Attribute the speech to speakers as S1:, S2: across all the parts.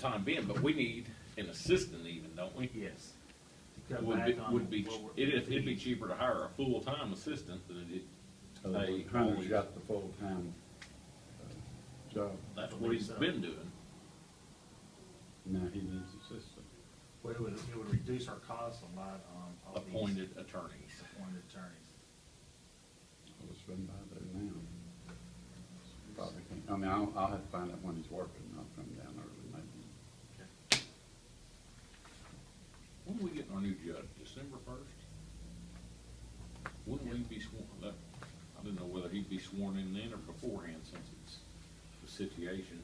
S1: time being, but we need an assistant even, don't we?
S2: Yes. To cut
S1: Would
S2: back
S1: be,
S2: on
S1: would be,
S2: what we're-
S1: it'd, it'd be cheaper to hire a full-time assistant than it,
S3: Uh,
S1: Hey,
S3: Hunter's
S1: holy-
S3: got the full-time uh, job,
S1: that's what he's been doing.
S3: now he needs assistance.
S2: But it would, it would reduce our costs a lot on all these
S1: Appointed attorneys.
S2: appointed attorneys.
S3: I was running by there now. Probably can't, I mean, I'll, I'll have to find out when he's working, I'll come down early maybe.
S1: When are we getting our new judge, December first? When will he be sworn, That- I didn't know whether he'd be sworn in then or beforehand since it's the situation.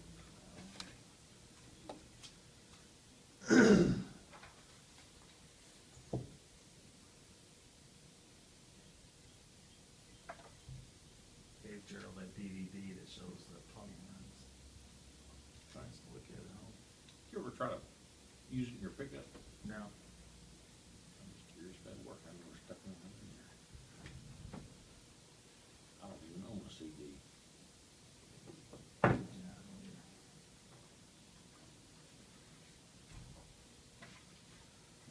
S2: Gave Gerald that DVD that shows the appointments. Tries to look at it all.
S1: You ever try to use it in your pickup?
S2: Now,
S1: I'm just curious about work, I've never stuck one in there. I don't even own a CD.
S2: yeah,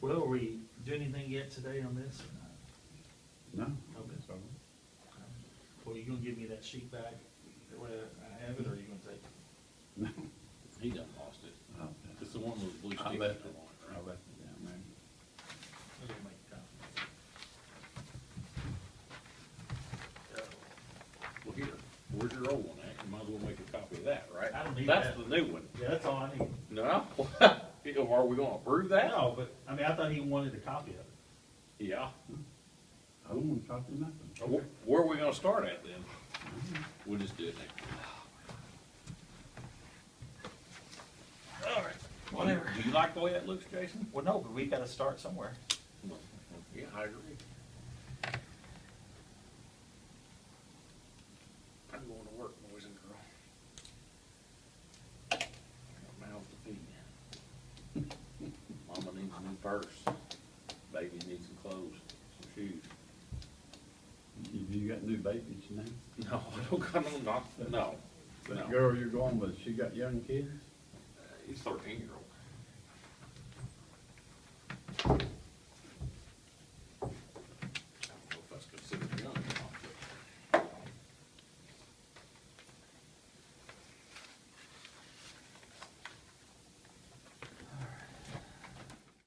S2: Will we do anything yet today on this or not?
S3: No?
S2: Okay.
S3: So,
S2: Well, you gonna give me that sheet back, that way I have it, or you gonna take it?
S3: No.
S1: He done lost it.
S3: I'll-
S1: It's the one with blue
S3: I
S1: stickers on
S3: left
S1: it,
S3: it, I
S1: right?
S3: left it down there.
S2: I'm gonna make a copy.
S1: Well, here, where's your old one at? You might as well make a copy of that, right?
S2: I don't need
S1: That's
S2: that.
S1: the new one.
S2: Yeah, that's all I need.
S1: No? You know, Are we gonna approve that?
S2: No, but, I mean, I thought he wanted a copy of it.
S1: Yeah.
S3: I don't want to talk to you nothing.
S1: Wh- Where are we gonna start at then? We'll just do it next.
S2: All right,
S1: Do you like the way that looks, Jason?
S4: Well, no, but we gotta start somewhere.
S1: Yeah, I agree. I'm going to work, boys and girls. I got mouths to feed. Mama needs a new purse. Baby needs some clothes, some shoes.
S3: You, you got new babies now?
S1: No, I don't got no, not, no.
S3: That
S1: No.
S3: girl you're going with, she got young kids?
S1: Uh, He's thirteen year old.